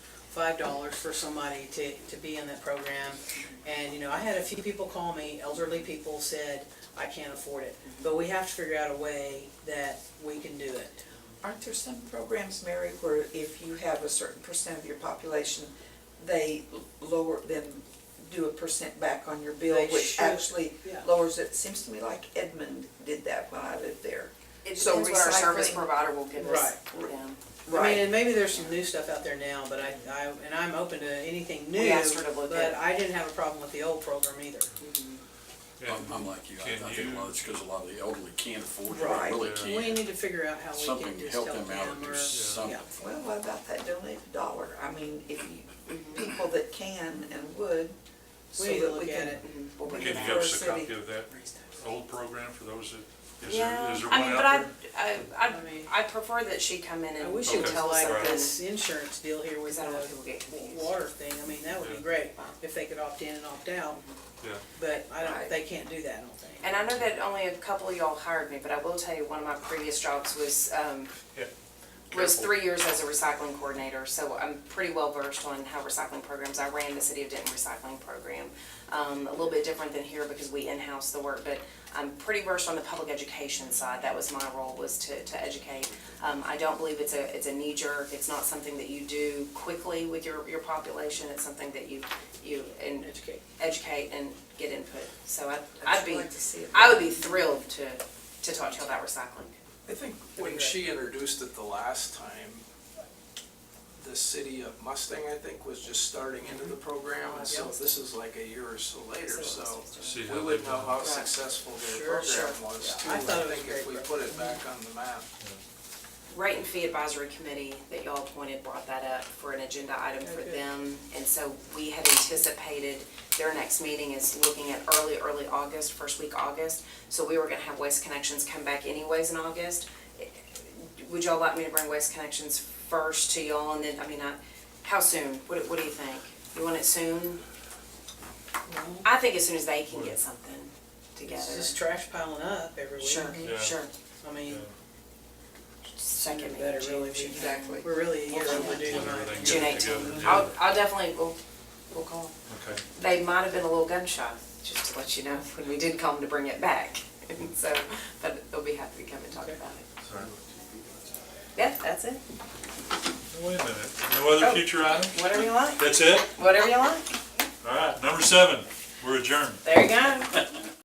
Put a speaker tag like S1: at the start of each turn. S1: five dollars for somebody to, to be in that program. And, you know, I had a few people call me, elderly people said, I can't afford it. But we have to figure out a way that we can do it.
S2: Aren't there some programs, Mary, where if you have a certain percent of your population, they lower, then do a percent back on your bill,
S1: They
S2: which
S1: should,
S2: actually
S1: yeah.
S2: lowers it? Seems to me like Edmund did that when I lived there.
S3: It
S2: So
S3: depends what our service
S2: recycling-
S3: provider will give us. Yeah.
S1: I mean, and maybe there's some new stuff out there now, but I, I, and I'm open to anything new.
S3: We asked her to look
S1: But
S3: at-
S1: I didn't have a problem with the old program either.
S4: I'm, I'm like you, I, I think a lot of it's because a lot of the elderly can't afford it,
S2: Right.
S4: they really
S1: We
S4: can't.
S1: need to figure out how we
S4: Something
S1: can
S4: to
S1: just help
S4: help them out
S1: them
S4: or
S1: or,
S4: do something.
S1: yeah.
S2: Well, what about that donate a dollar? I mean, if you, people that can and would, so
S1: We need to
S2: that we
S1: look at
S2: can.
S1: it.
S3: We'll bring it
S5: Can you
S3: back.
S5: give us a
S2: City.
S5: copy of that old program for those that, is there,
S3: Yeah,
S5: is there
S3: I
S5: one
S3: mean, but I,
S5: out
S3: I,
S1: I mean-
S3: I, I prefer that she come in
S1: I
S3: and
S1: wish it
S3: and
S1: was
S3: tell us
S1: like
S5: right.
S3: something.
S1: this insurance deal here with
S3: Because I know people
S1: the
S3: get confused.
S1: water thing, I mean, that would be
S5: Yeah.
S1: great if they could opt in and opt out,
S5: there? Yeah.
S1: but I don't,
S2: Right.
S1: they can't do that, I don't think.
S3: And I know that only a couple of y'all hired me, but I will tell you, one of my previous jobs was, um,
S5: Yeah.
S3: was
S5: Careful.
S3: three years as a recycling coordinator, so I'm pretty well versed on how recycling programs, I ran the City of Denton Recycling Program. Um, a little bit different than here because we in-house the work, but I'm pretty versed on the public education side, that was my role, was to, to educate. Um, I don't believe it's a, it's a knee jerk, it's not something that you do quickly with your, your population, it's something that you, you, and
S1: Educate.
S3: educate and get input, so I'd,
S2: I'd
S3: I'd be.
S2: like to see it.
S3: I would be thrilled to, to talk to you about recycling.
S6: I think when she introduced it the last time, the city of Mustang, I think, was just starting into the program, and so this is like a year or so later, so
S5: See how
S6: we
S5: they've
S6: would know
S5: done.
S6: how
S3: Right.
S6: successful their
S1: Sure, sure.
S6: program was
S1: Yeah.
S6: too.
S1: I
S6: I
S1: thought it was
S6: think if we
S1: great.
S6: put it back on the map.
S3: Rate and Fee Advisory Committee that y'all appointed brought that up for an agenda item for
S1: Okay.
S3: them. And so we had anticipated, their next meeting is looking at early, early August, first week August. So we were gonna have Waste Connections come back anyways in August. Would y'all like me to bring Waste Connections first to y'all and then, I mean, I, how soon? What, do- what do you think? You want it soon? I think as soon as they can get something together.
S1: It's just trash piling up every week.
S3: Sure,
S5: Yeah.
S3: sure.
S1: I mean,
S3: Second
S1: better
S3: meeting,
S1: really
S3: June, June.
S2: Exactly.
S1: we're really a year
S3: Well,
S1: overdue.
S5: when everything
S3: June
S5: gets together,
S3: eighteenth.
S5: yeah.
S3: I'll, I'll definitely, we'll, we'll call.
S5: Okay.
S3: They might have been a little gunshot, just to let you know, when we did call them to bring it back. And so, but they'll be happy to come and talk about it. Yeah, that's it.
S5: Wait a minute, no other
S3: Oh.
S5: future items?
S3: Whatever you like,
S5: That's it?
S3: whatever you like.
S5: All right, number seven, we're adjourned.
S3: There you go.